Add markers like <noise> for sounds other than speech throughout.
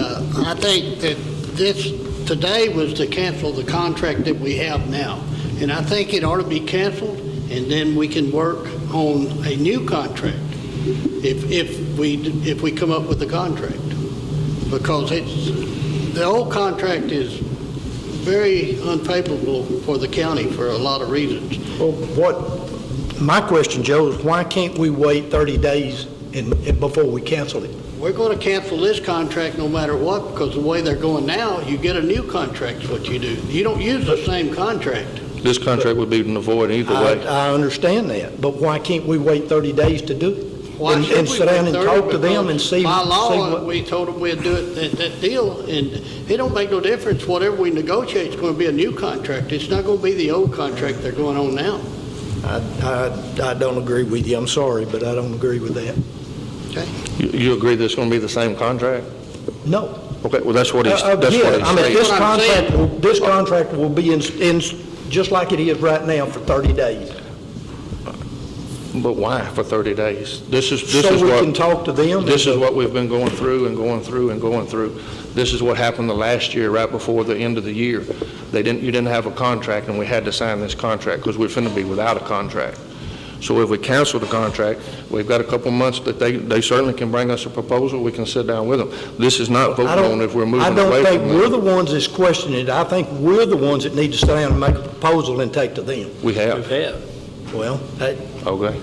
Uh, I think that this, today was to cancel the contract that we have now. And I think it ought to be canceled, and then we can work on a new contract if, if we, if we come up with a contract. Because it's, the old contract is very unfavorable for the county for a lot of reasons. Well, what, my question, Joe, is why can't we wait 30 days and, and before we cancel it? We're going to cancel this contract no matter what, because the way they're going now, you get a new contract, is what you do. You don't use the same contract. This contract would be in the void either I, way. I understand that, but why can't we wait 30 days to do it? Why And- should we And sit down and be talk to them thirty? and see. By see law, what- we told them we'd do it, that, that deal, and it don't make no difference. Whatever we negotiate is going to be a new contract. It's not going to be the old contract they're going on now. I, I, I don't agree with you, I'm sorry, but I don't agree with that. You- You agree that it's going to be the same contract? No. Okay, well, that's what he's, Uh, that's what he's Again, I mean, saying. this That's what I'm saying. contract, will- this contract will be in, in, just like it is right now for 30 days. But why for 30 days? This is, this So is we can what, talk to them. this is what we've been going through and going through and going through. This is what happened the last year, right before the end of the year. They didn't, you didn't have a contract, and we had to sign this contract because we're finna be without a contract. So if we cancel the contract, we've got a couple months that they, they certainly can bring us a proposal, we can sit down with them. This is not I voting don't- on if we're moving I away don't think from we're them. the ones that's questioning it. I think we're the ones that need to stand and make a proposal and take to them. We have. Well, that- Okay.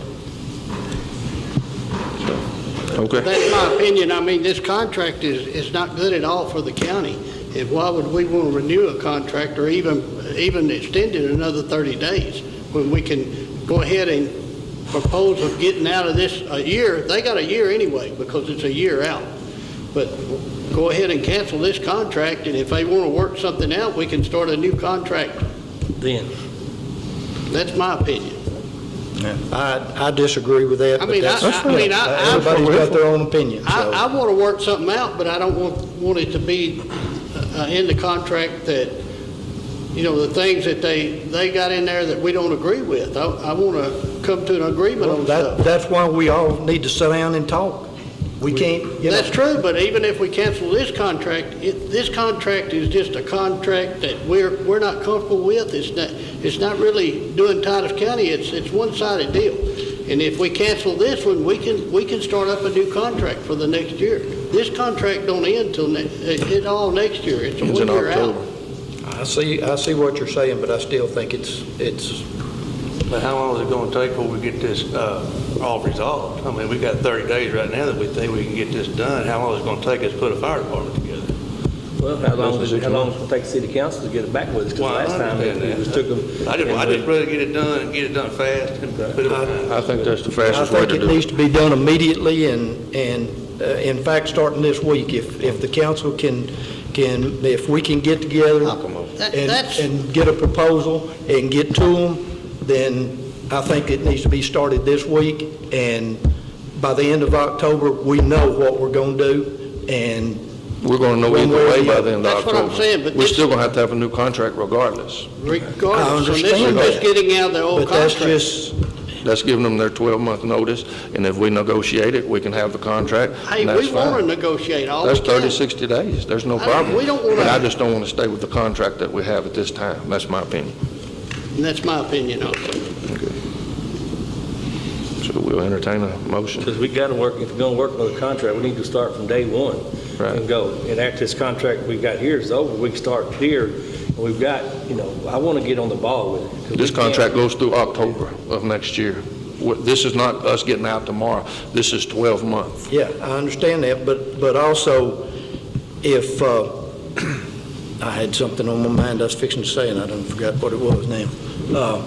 So, Okay. That's my opinion. I mean, this contract is, is not good at all for the county. And why would we want to renew a contract or even, even extend it another 30 days when we can go ahead and propose of getting out of this a year? They got a year anyway because it's a year out. But go ahead and cancel this contract and if they want to work something out, we can start a new contract. Then. That's my opinion. I I disagree with that, I but mean, I- that's... I- I mean, I- I- Everybody's got their own opinion, so... I, I want to work something out, but I don't want, want it to be uh, in the contract that, you know, the things that they, they got in there that we don't agree with. I, I want to come to an agreement Well, on that- stuff. That's why we all need to sit down and talk. We can't, you know... That's true, but even if we cancel this contract, it, this contract is just a contract that we're, we're not comfortable with. It's not, it's not really doing Titus County, it's, it's one-sided deal. And if we cancel this one, we can, we can start up a new contract for the next year. This contract don't end till, ne- it, it all next year, it's a It's in one-year out. October. I see, I see what you're saying, but I still think it's, it's... But how long is it gonna take before we get this, uh, all resolved? I mean, we got thirty days right now that we think we can get this done. How long is it gonna take us to put a fire department together? Well, how long, Less does than it- six how long does it take the city council to get it back with us? Well, I Because last time it understand it that. was took them. I just, I and we- just rather get it done and get it done fast and put it behind. I think that's the I fastest way think to it do it. needs to be done immediately, and, and uh, in fact, starting this week, if, if the council can, can, if we can get together That- and, that's- and get a proposal and get to them, then I think it needs to be started this week, and by the end of October, we know what we're going to do, and We're going to know One either way or way the by other. the end of That's October. what I'm saying, but We're this- still going to have to have a new contract regardless. Regardless, and this is understand just that. getting out of the old But that's contract. just, That's giving them their 12-month notice, and if we negotiate it, we can have the contract, Hey, and that's we want to fine. negotiate all the That's time. 30, 60 days, there's no I- problem. we don't wanna- But I just don't want to stay with the contract that we have at this time, that's my opinion. And that's my opinion also. So we'll entertain a motion. Because we gotta work, if we're gonna work on the contract, we need to start from day one. Right. And go, and after this contract we got here is over, we can start here, and we've got, you know, I wanna get on the ball with it. 'cause we This can't- contract goes through October of next year. Wh- This is not us getting out tomorrow, this is 12 months. Yeah, I understand that, but, but also, if, uh, <clears throat> I had something on my mind I was fixing to say, and I done forgot what it was now. Uh,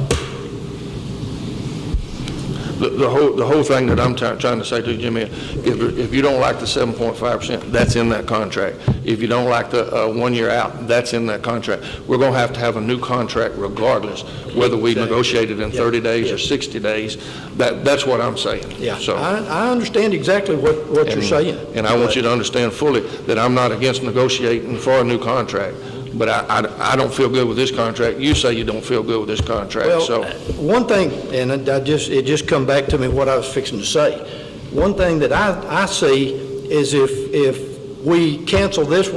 The- The whole, the whole thing that I'm try- trying to say to you, Jimmy, if, if you don't like the 7.5%, that's in that contract. If you don't like the uh, one year out, that's in that contract. We're going to have to have a new contract regardless, whether we negotiate it in 30 days or 60 days. That, that's what I'm saying. Yeah, So- I, I understand exactly what, what you're and- saying. And I want you to understand fully that I'm not against negotiating for a new contract, but I, I, I don't feel good with this contract. You say you don't feel good with this contract, so. Well, uh, one thing, and I just, it just come back to me what I was fixing to say. One thing that I, I see is if, if we cancel this one.